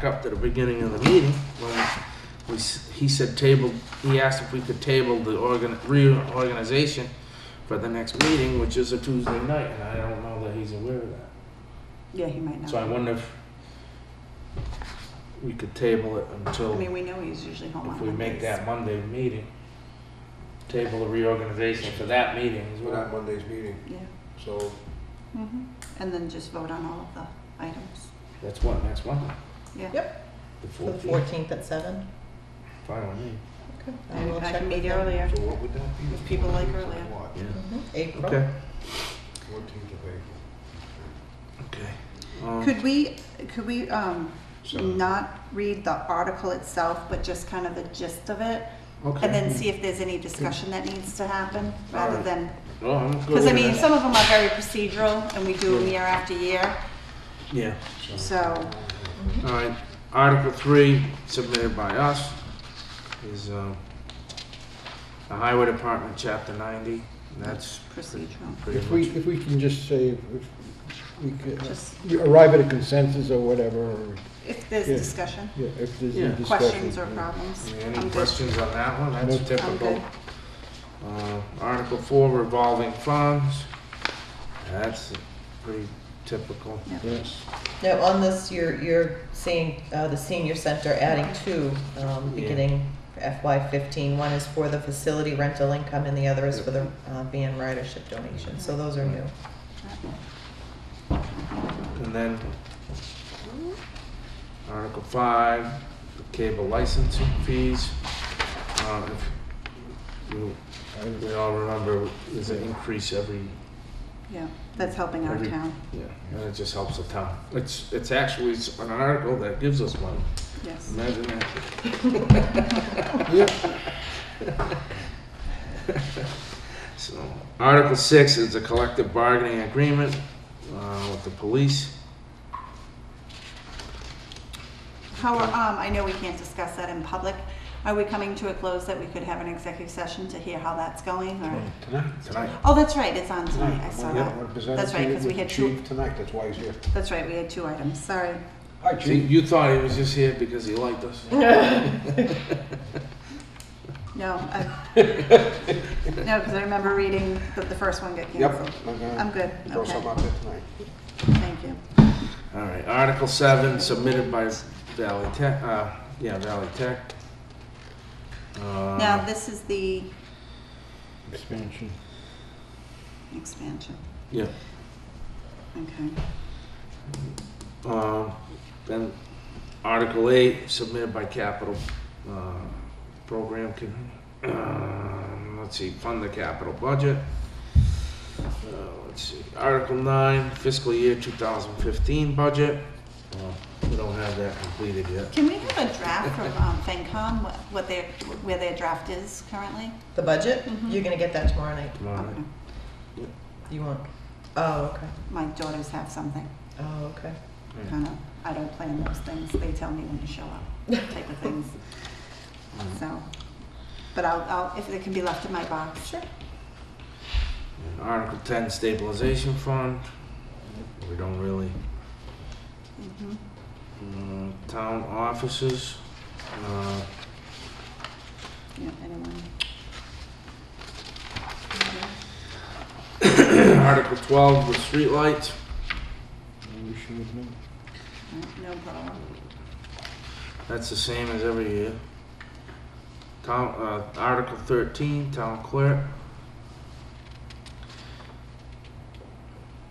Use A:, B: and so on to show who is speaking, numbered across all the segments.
A: back up to the beginning of the meeting, when we, s- he said table, he asked if we could table the organ, reorganization for the next meeting, which is a Tuesday night, and I don't know that he's aware of that.
B: Yeah, he might not.
A: So I wonder if we could table it until,
B: I mean, we know he's usually home on
A: if we make
B: Mondays.
A: that Monday meeting. Table the reorganization for that meeting is
C: We're
A: what
C: not
A: I,
C: Monday's meeting,
B: Yeah.
C: so
B: Mm-hmm. And then just vote on all of the items.
A: that's what, next Monday?
B: Yeah.
D: Yep.
A: The
D: The
A: fourteenth,
D: fourteenth at seven?
A: fine with me.
D: Okay.
B: I,
D: will
B: I
D: check
B: can
D: with
B: meet
D: them.
B: earlier.
C: so what would that be?
B: If people like earlier.
C: What,
D: Mhm. April.
A: Okay,
C: fourteenth of April?
A: okay. Um,
B: Could we, could we, um,
C: Seven.
B: not read the article itself, but just kind of the gist of it?
A: Okay.
B: And then see if there's any discussion that needs to happen, rather
A: Alright.
B: than,
A: Oh, I'm good
B: because I
A: with
B: mean,
A: that.
B: some of them are very procedural, and we do them year after year,
A: Yeah,
B: so,
A: all right. Article three submitted by us is, um, the Highway Department, Chapter ninety, and that's pretty
B: procedural.
A: pretty
E: If we,
A: much.
E: if we can just say, if we could,
C: uh,
B: Just,
E: we arrive at a consensus or whatever, or,
B: if there's
E: Yeah.
B: discussion,
E: yeah, if there's
A: Yeah.
E: any discussion.
B: questions or
E: yeah.
B: problems.
A: Any
B: I'm good.
A: questions on that one? That's
E: Nope.
B: I'm
A: typical.
B: good.
A: Uh, Article four revolving funds, that's pretty typical.
E: Yes,
D: Now, on this, you're, you're seeing, uh, the senior center adding two, um,
A: Yeah.
D: beginning FY fifteen. One is for the facility rental income and the other is for the, uh, van ridership donation. So those are new.
A: And then Article five, the cable licensing fees. Uh, if you
E: I-
A: We all remember there's an increase every,
B: Yeah, that's helping our
A: Every-
B: town,
A: yeah, and it just helps the town. It's, it's actually, it's an article that gives us money.
B: yes.
A: Imagine that.
E: yeah,
A: So, Article six is a collective bargaining agreement, uh, with the police.
B: How, are- um, I know we can't discuss that in public. Are we coming to a close that we could have an executive session to hear how that's going, or?
C: Tonight?
A: Tonight,
B: Oh, that's right, it's on tonight, I
C: Tonight,
B: saw
C: I'm
B: that.
C: gonna present
B: That's
C: it to
B: right,
C: you
B: 'cause we
C: with the
B: had two-
C: chief Tonight, that's why he's here.
B: That's right, we had two items, sorry.
C: Hi,
A: See,
C: chief.
A: you thought he was just here because he liked us.
B: No, I, no, because I remember reading that the first one got
C: Yep.
B: canceled.
C: I'm gonna
B: I'm good,
C: Throw
B: okay,
C: something out there tonight.
B: thank you.
A: All right, Article seven submitted by Valley Tech, uh, yeah, Valley Tech.
C: Um,
A: Uh,
B: Now, this is the
E: expansion.
B: expansion,
A: Yeah,
B: okay.
A: Um, Then Article 8, submitted by Capital uh, Program, can, um, let's see, fund the capital budget. Uh, Let's see, Article 9, fiscal year 2015 budget. Uh, We don't have that completed yet.
B: Can we have a draft from, um, FENCom, what- what their, where their draft is currently?
D: The budget,
B: Mhm.
D: you're gonna get that tomorrow night.
A: Tomorrow night.
B: Okay.
D: You won't? Oh, okay.
B: My daughters have something,
D: Oh, okay.
B: kind of, I don't plan those things, they tell me when to show up, type of things, so. But I'll, I'll, if it can be left in my box. Sure.
A: And Article 10, stabilization fund. We don't really,
B: Mm-hmm.
A: mm, town offices. uh,
B: Yeah, anyone?
A: Article 12, the streetlights.
E: We should have known.
B: No problem.
A: That's the same as every year. Town, uh, Article thirteen, town clerk.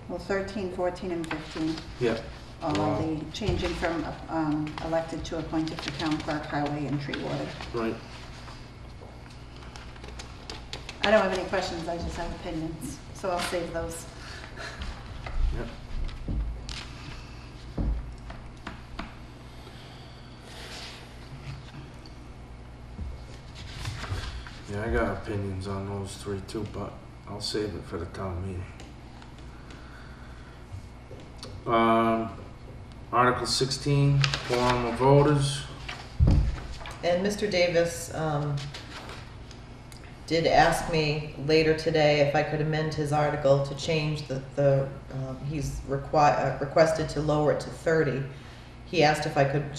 B: Well, 13, 14, and 15,
A: Yep.
B: all
A: Wow.
B: of the changing from um, elected to appointed to town clerk, highway, and tree warden.
A: Right.
B: I don't have any questions, I just have opinions, so I'll save those.
A: Yeah, I got opinions on those three too, but I'll save it for the town meeting. Um, Article sixteen, quorum of voters.
D: And Mr. Davis um, did ask me later today if I could amend his article to change the, the um, he's requi- uh, requested to lower it to 30. He asked if I could